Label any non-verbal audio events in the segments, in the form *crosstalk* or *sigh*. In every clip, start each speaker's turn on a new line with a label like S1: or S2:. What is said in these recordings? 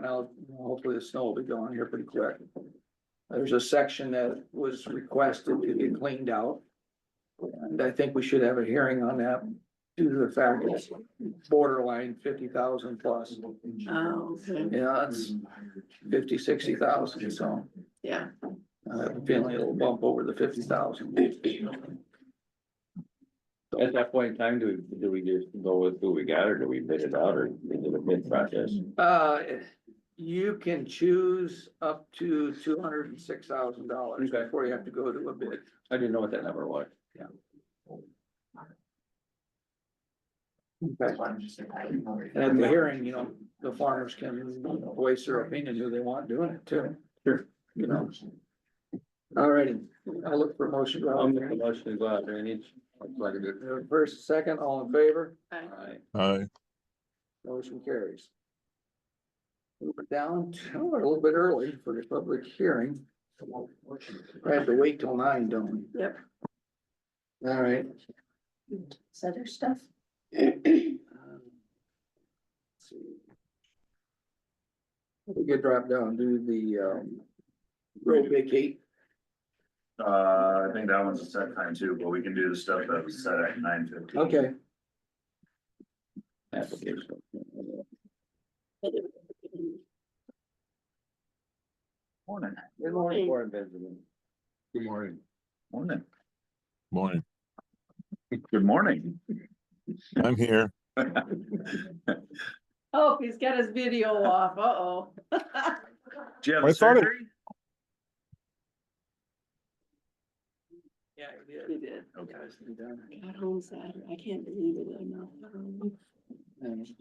S1: Now, hopefully the snow will be gone here pretty quick. There's a section that was requested to be cleaned out. And I think we should have a hearing on that due to the fact it's borderline fifty thousand plus.
S2: Oh, okay.
S1: Yeah, it's fifty, sixty thousand, so
S2: yeah,
S1: I have a feeling it'll bump over the fifty thousand.
S3: At that point in time, do we, do we just go with who we got or do we bid it out or is it a bid process?
S1: Uh, you can choose up to two hundred and six thousand dollars
S3: Okay.
S1: before you have to go to a bid.
S3: I didn't know what that number was.
S1: And at the hearing, you know, the farmers can voice their opinion who they want doing it too.
S3: Sure.
S1: You know. All righty, I'll look for a motion.
S3: I'll make a motion to go out there and each. like a good-
S1: First, second, all in favor,
S2: I-
S3: Alright.
S4: Aye.
S1: motion carries. We're down to a little bit early for the public hearing. We have to wait till nine, don't we?
S2: Yep.
S1: All right.
S2: Is other stuff?
S1: Um, let's see. We could drop down, do the, um, road vacate,
S5: Uh, I think that one's a set time too, but we can do the stuff that was set at nine fifteen.
S1: okay,
S3: Application.
S5: Morning.
S3: Good morning, Warren Benjamin. Good morning.
S5: Morning.
S4: Morning.
S5: Good morning. *laughs*
S4: I'm here.
S2: Oh, he's got his video off, uh-oh. *laughs*
S5: Do you have
S4: I
S5: a
S4: thought it-
S5: surgery?
S1: yeah,
S2: He did.
S5: Okay.
S2: Got home Saturday, I can't believe it, I know.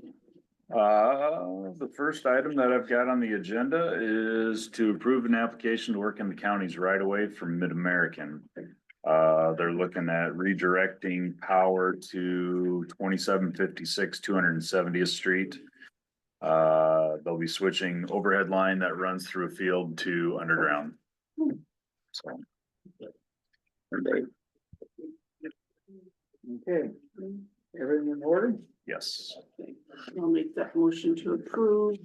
S5: Uh, the first item that I've got on the agenda is to approve an application to work in the counties right away from Mid-American. Uh, they're looking at redirecting power to twenty-seven fifty-six, two hundred and seventieth street. Uh, they'll be switching overhead line that runs through a field to underground. So.
S1: Okay, everything in order?
S5: Yes,
S2: I'll make that motion to approve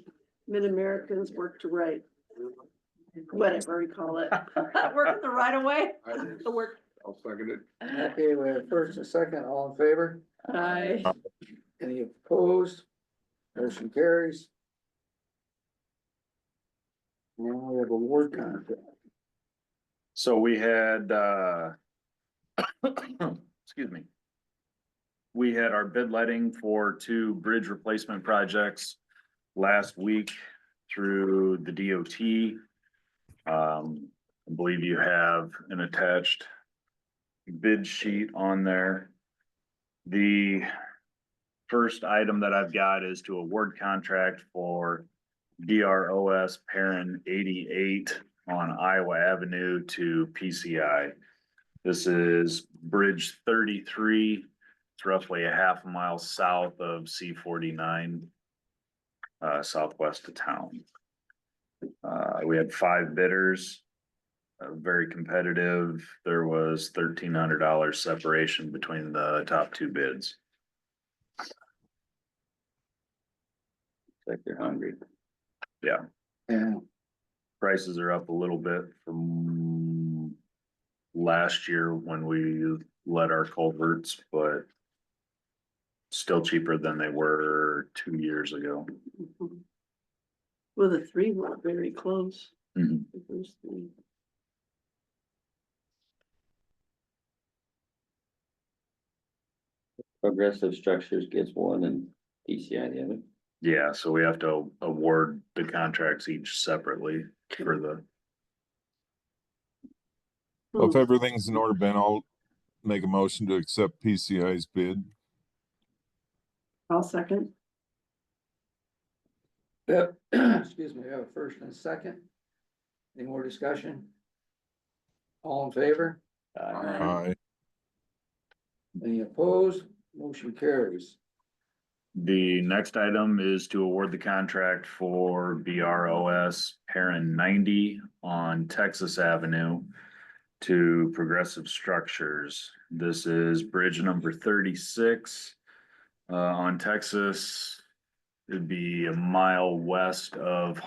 S2: Mid-Americans Work to Right. Whatever we call *laughs* it, working the right of way, the work.
S3: I'll second it.
S1: Okay, we have first and second, all in favor,
S2: I,
S1: any opposed? Motion carries. Now we have a war contract,
S5: so we had, uh. *coughs* Excuse me. We had our bid letting for two bridge replacement projects last week through the DOT. Um, I believe you have an attached bid sheet on there. The first item that I've got is to award contract for DROS Perrin eighty-eight on Iowa Avenue to PCI. This is Bridge thirty-three. It's roughly a half mile south of C forty-nine. Uh, southwest of town. Uh, we had five bidders. uh, very competitive. There was thirteen hundred dollars separation between the top two bids.
S3: Like you're hungry.
S1: and
S5: Prices are up a little bit from. Last year when we let our culverts, but. Still cheaper than they were two years ago.
S2: well, the three were very close.
S5: Mhm.
S2: The first three.
S3: Progressive Structures gets one and PCI the other.
S5: Yeah, so we have to award the contracts each separately for the,
S4: Well, If
S2: Hmm.
S4: everything's in order, Ben, I'll make a motion to accept PCI's bid.
S2: I'll second.
S1: Yep, *clears throat* excuse me, we have a first and a second. Any more discussion? All in favor?
S3: Uh,
S4: Aye.
S1: Any opposed? Motion carries.
S5: the next item is to award the contract for BROS Perrin ninety on Texas Avenue. To Progressive Structures. This is bridge number thirty-six. Uh, on Texas. It'd be a mile west of